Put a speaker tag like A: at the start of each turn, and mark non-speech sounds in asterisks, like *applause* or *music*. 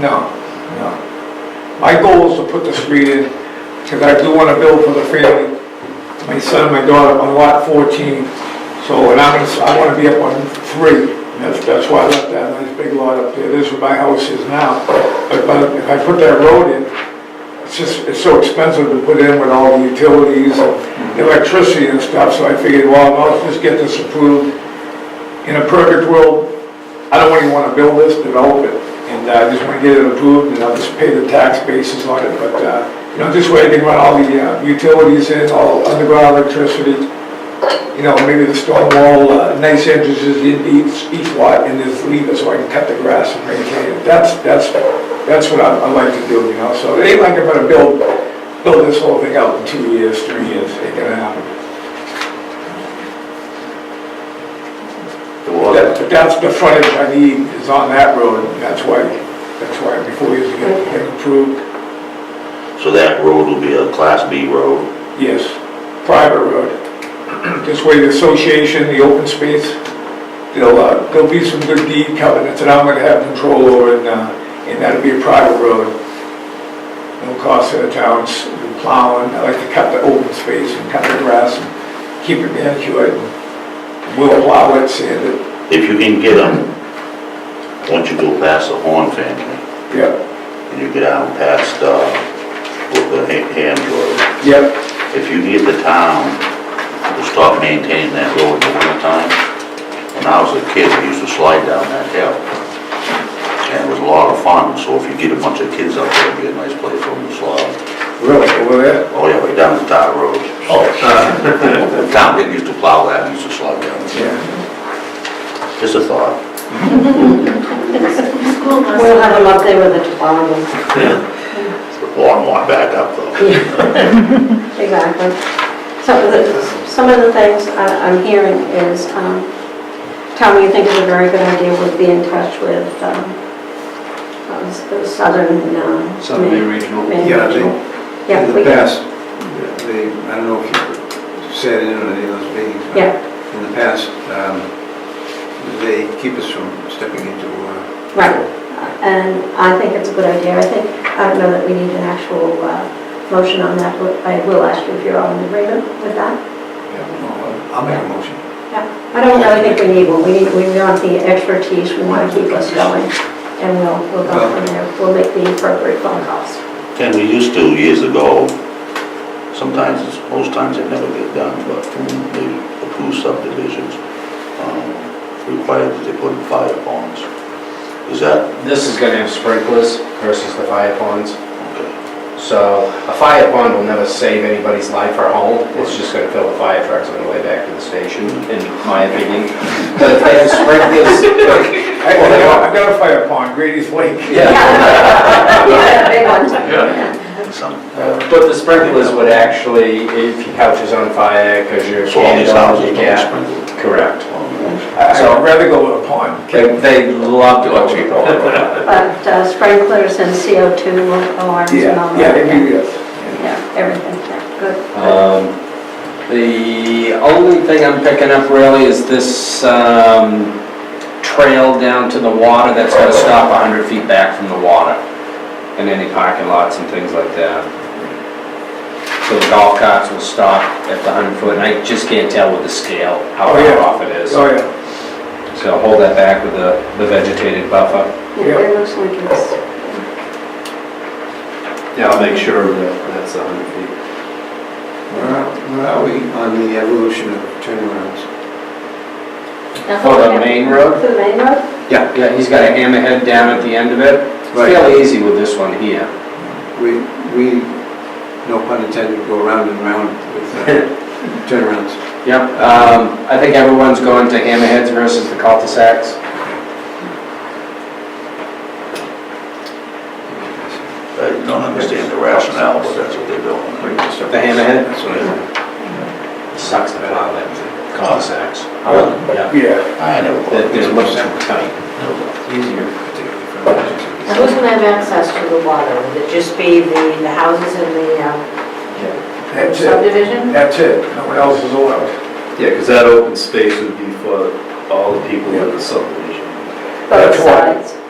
A: No, no. My goal is to put the street in, because I do want to build for the family, my son, my daughter, on lot 14. So, and I'm, gonna- I want to be up on three, and that's, that's why I left that nice big lot up there, this is where my house is now. But, but if I put that road in, it's just, it's so expensive to put in with all the utilities and electricity and stuff, so I figured, well, I'll just get this approved. In a perfect world, I don't really want to build this, develop it, and uh, I just want to get it approved, and I'll just pay the tax basis on it, but, uh, you know, this way I can run all the uh, utilities in, all underground electricity, you know, maybe the stone wall, uh, nice entrances in each, each lot, and just leave it so I can cut the grass and maintain it. That's, that's, that's what I, I like to do, you know, so it ain't like I'm gonna build, build this whole thing out in two years, three years, ain't gonna happen.
B: The
A: That-
B: water,
A: But that's the frontage I need, is on that road, and that's why, that's why before you get, get approved,
B: so that road will be a class B road,
A: yes, private road. *clears throat* This way the association, the open space, there'll, uh, there'll be some good deed covenants that I'm gonna have control over and, uh, and that'll be a private road. No cost to the towns, the plowing, I like to cut the open space and cut the grass and keep it manicured. We'll plow it, sand it,
B: if you can get them, once you go past the Horn family,
A: yep,
B: and you get down past, uh, with the Ha- Ham Road,
A: yep,
B: if you can get the town to stop maintaining that road in the wintertime, when I was a kid, we used to slide down that hill, and it was a lot of fun, so if you get a bunch of kids out there, it'd be a nice place for them to slide.
A: really, over there.
B: Oh, yeah, way down the Tower Road. The *laughs* town didn't used to plow that, used to slide down.
A: Yeah,
B: Just a thought.
C: We'll have them up there with the toboggan.
B: Long one back up though.
C: *laughs* Exactly. So the, some of the things I- I'm hearing is, um, Tom, you think it's a very good idea would be in touch with, um, uh, s- the Southern, uh.
D: Southern Maine Regional. Yeah, they,
C: Yeah,
D: in
C: we
D: the
C: can,
D: past, they, I don't know if you sat in on any of those meetings, but
C: Yeah.
D: in the past, um, they keep us from stepping into, uh,
C: right. And I think it's a good idea. I think, I don't know that we need an actual, uh, motion on that, but I will ask you if you're all in agreement with that.
D: I'll make a motion.
C: Yeah, I don't really think we need one, we need, we want the expertise, we want to keep us going, and we'll, we'll go from there, we'll make the appropriate phone calls.
B: And we used to years ago, sometimes, most times it never get done, but when they approve subdivisions, um, required that they put in fire ponds. Is that,
E: This is gonna have sprinklers versus the fire ponds.
B: okay,
E: So a fire pond will never save anybody's life or home. It's just gonna fill the fire trucks on the way back to the station, in my opinion. But if they have sprinklers,
A: I, I got- I got a fire pond, Grady's Lake.
C: *laughs* Yeah, big one.
B: some, uh,
E: but the sprinklers would actually, if your couch is on fire, because you're.
B: so all these houses don't
E: Yeah,
B: sprinkle.
E: correct.
A: I- I'd rather go with a pond.
E: They, they love to go to the
B: *laughs*
E: pond.
C: But uh, sprinklers and CO2 alarms and all
A: Yeah, yeah,
C: that.
A: maybe, yes.
C: Yeah, everything, yeah, good.
F: Um, The only thing I'm picking up really is this um, trail down to the water that's gonna stop 100 feet back from the water and any parking lots and things like that. So the golf carts will stop at the 100 foot, and I just can't tell with the scale how
A: Oh, yeah.
F: far off it is.
A: Oh, yeah,
F: So hold that back with the the vegetated buffer.
C: Yeah, It looks like it's,
E: Yeah, I'll make sure that that's a hundred feet.
D: Where are, where are we on the evolution of turnarounds?
F: For Oh, the main road?
C: For the main road?
F: Yeah. Yeah, he's got a hammerhead down at the end of it. It's
D: Right.
F: fairly easy with this one here.
D: We, we, no pun intended, go round and round with *laughs* uh, turnarounds.
F: Yep, um, I think everyone's going to hammerheads versus the cul-de-sacs.
B: I don't understand the rationale, but that's what they're doing.
F: The hammerhead?
D: That's what I,
F: Sucks to plow that cul-de-sacs. Yeah.
A: yeah.
B: I never.
F: That- There's much too tight.
D: easier particularly for emergencies.
G: And who's gonna have access to the water? Would it just be the, the houses in the um,
A: That's it,
G: subdivision?
A: that's it, no one else is allowed.
H: Yeah, because that open space would be for all the people in the subdivision.
C: Both
A: That's why.
C: sides.